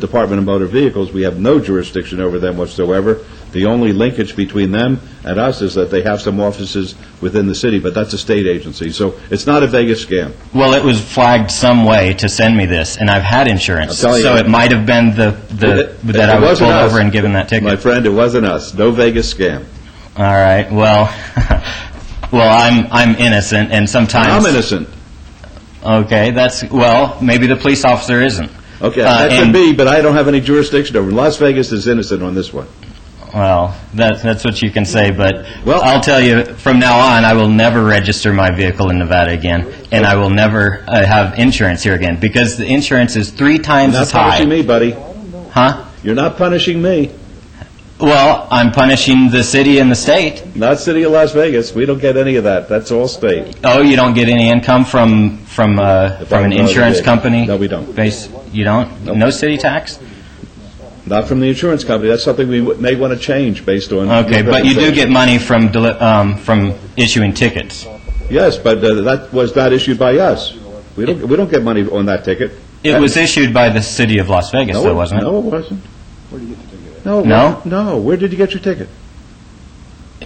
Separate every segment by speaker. Speaker 1: The Department of Motor Vehicles, we have no jurisdiction over them whatsoever. The only linkage between them and us is that they have some offices within the city, but that's a state agency. So it's not a Vegas scam.
Speaker 2: Well, it was flagged some way to send me this, and I've had insurance.
Speaker 1: I'm telling
Speaker 2: So
Speaker 1: you.
Speaker 2: it might have been the, the
Speaker 1: It-
Speaker 2: that I
Speaker 1: it
Speaker 2: was
Speaker 1: wasn't
Speaker 2: pulled
Speaker 1: us.
Speaker 2: over and given that
Speaker 1: My
Speaker 2: ticket.
Speaker 1: friend, it wasn't us. No Vegas scam.
Speaker 2: All right, well, well, I'm, I'm innocent, and sometimes...
Speaker 1: I'm innocent.
Speaker 2: Okay, that's, well, maybe the police officer isn't.
Speaker 1: Okay,
Speaker 2: Uh,
Speaker 1: that could
Speaker 2: and-
Speaker 1: be, but I don't have any jurisdiction over. it. Las Vegas is innocent on this one.
Speaker 2: Well, that, that's what you can say, but
Speaker 1: Well-
Speaker 2: I'll tell you, from now on, I will never register my vehicle in Nevada again, and I will never uh, have insurance here again, because the insurance is three times
Speaker 1: Not
Speaker 2: as high.
Speaker 1: punishing me, buddy.
Speaker 2: Huh?
Speaker 1: You're not punishing me.
Speaker 2: Well, I'm punishing the city and the state.
Speaker 1: Not City of Las Vegas. We don't get any of that. That's all state.
Speaker 2: Oh, you don't get any income from, from, uh, from an
Speaker 1: I'm not
Speaker 2: insurance
Speaker 1: big.
Speaker 2: company?
Speaker 1: No, we don't.
Speaker 2: Base, you don't? No city tax?
Speaker 1: Not from the insurance company. That's something we w- may want to change based on.
Speaker 2: Okay,
Speaker 1: your
Speaker 2: but you
Speaker 1: presentation.
Speaker 2: do get money from, deli- um, from issuing tickets.
Speaker 1: Yes, but uh, that was not issued by us. We don't, we don't get money on that ticket.
Speaker 2: It was issued by the city of Las Vegas,
Speaker 1: No,
Speaker 2: though, wasn't it?
Speaker 1: No, it wasn't. Where did you get the ticket? No, it
Speaker 2: No?
Speaker 1: wasn't. No, where did you get your ticket?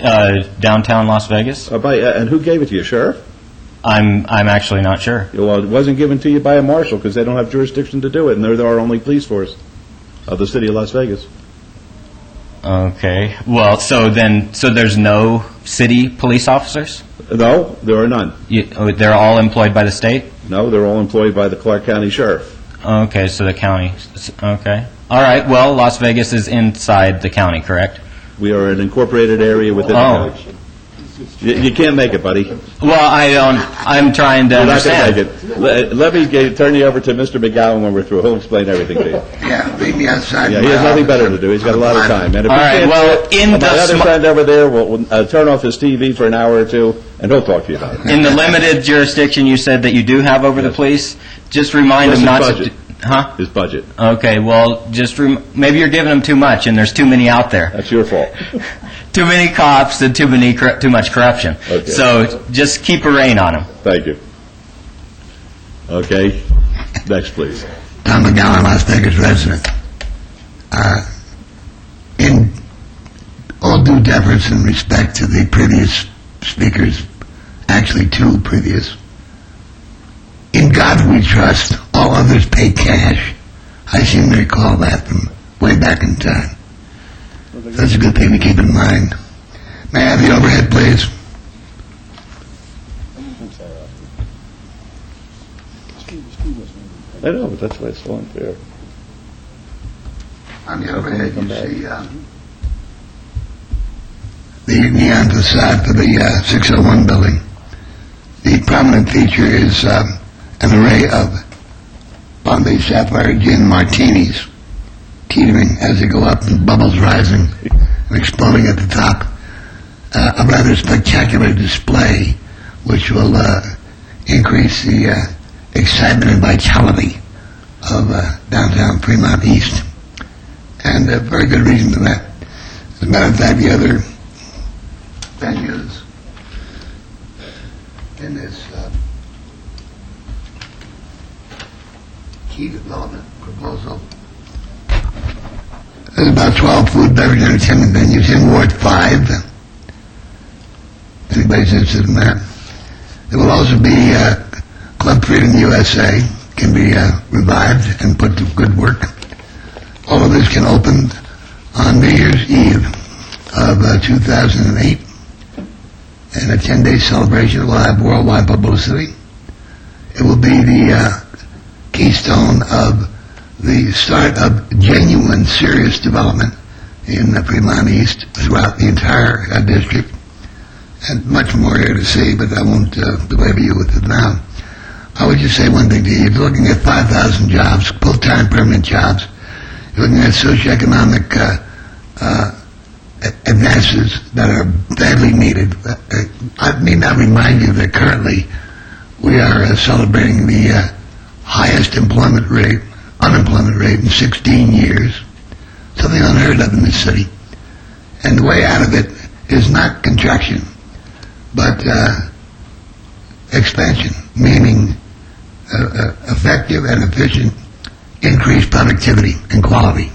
Speaker 2: Uh, downtown Las Vegas?
Speaker 1: Uh, By, uh, and who gave it to you, sheriff?
Speaker 2: I'm, I'm actually not sure.
Speaker 1: Well, it wasn't given to you by a marshal, because they don't have jurisdiction to do it, and they're our only police force of the city of Las Vegas.
Speaker 2: Okay, well, so then, so there's no city police officers?
Speaker 1: No, there are none.
Speaker 2: You, oh, they're all employed by the state?
Speaker 1: No, they're all employed by the Clark County Sheriff.
Speaker 2: Okay, so the county, s- okay. All right, well, Las Vegas is inside the county, correct?
Speaker 1: We are an incorporated area within the
Speaker 2: Oh.
Speaker 1: county. You you can't make it, buddy.
Speaker 2: Well, I don't, I'm trying to
Speaker 1: You're not going
Speaker 2: understand.
Speaker 1: to make it. Let let me get- turn you over to Mr. McGowan when we're through. He'll explain everything to you.
Speaker 3: Yeah, leave me outside.
Speaker 1: Yeah, he has nothing better to do. He's got a lot of time. And if
Speaker 2: All
Speaker 1: he
Speaker 2: right,
Speaker 1: can't
Speaker 2: well,
Speaker 1: do it,
Speaker 2: in
Speaker 1: my
Speaker 2: the
Speaker 1: other
Speaker 2: sm-
Speaker 1: friend over there will will, uh, turn off his TV for an hour or two, and he'll talk to you about it.
Speaker 2: In the limited jurisdiction you said that you do have over the police, just remind them
Speaker 1: Listen,
Speaker 2: not to...
Speaker 1: budget.
Speaker 2: do- Huh?
Speaker 1: His budget.
Speaker 2: Okay, well, just, rem- maybe you're giving them too much, and there's too many out there.
Speaker 1: That's your fault.
Speaker 2: too many cops and too many corru- too much corruption.
Speaker 1: Okay.
Speaker 2: So just keep a rein on them.
Speaker 1: Thank you. Okay. Next, please.
Speaker 3: Tom McGowan, Las Vegas resident. Uh, In all due deference and respect to the previous speakers, actually two previous, in God we trust, all others pay cash. I seem to recall that from way back in time. That's a good thing to keep in mind. May I have the overhead, please?
Speaker 1: I know, but that's why it's so unfair.
Speaker 3: On the other hand, you see, uh, the neon facade for the uh, 601 building. The prominent feature is um, an array of Bombay Sapphire Gin martinis teetering as they go up and bubbles rising and exploding at the top. Uh, a rather spectacular display which will uh, increase the uh, excitement and vitality of uh, downtown Fremont East and a very good reason for that. As a matter of fact, the other venues in this uh, key development proposal, there's about 12 food, beverage, entertainment venues in Ward 5. If anybody's interested in that. There will also be uh, Club Freedom USA can be uh, revived and put to good work all of this can open on New Year's Eve of uh, 2008, and a 10-day celebration will have worldwide publicity. It will be the uh, keystone of the start of genuine serious development in uh, Fremont East throughout the entire uh, district, and much more here to see, but I won't uh, belabor you with it now. I would just say one thing to you. You're looking at 5,000 jobs, full-time permanent jobs, you're looking at socioeconomic uh, uh, a- advances that are badly needed. Uh, uh, I mean, I remind you that currently we are uh, celebrating the uh, highest employment rate, unemployment rate in 16 years, something unheard of in this city. And the way out of it is not contraction, but uh, expansion, meaning uh, uh, effective and efficient increase productivity and quality.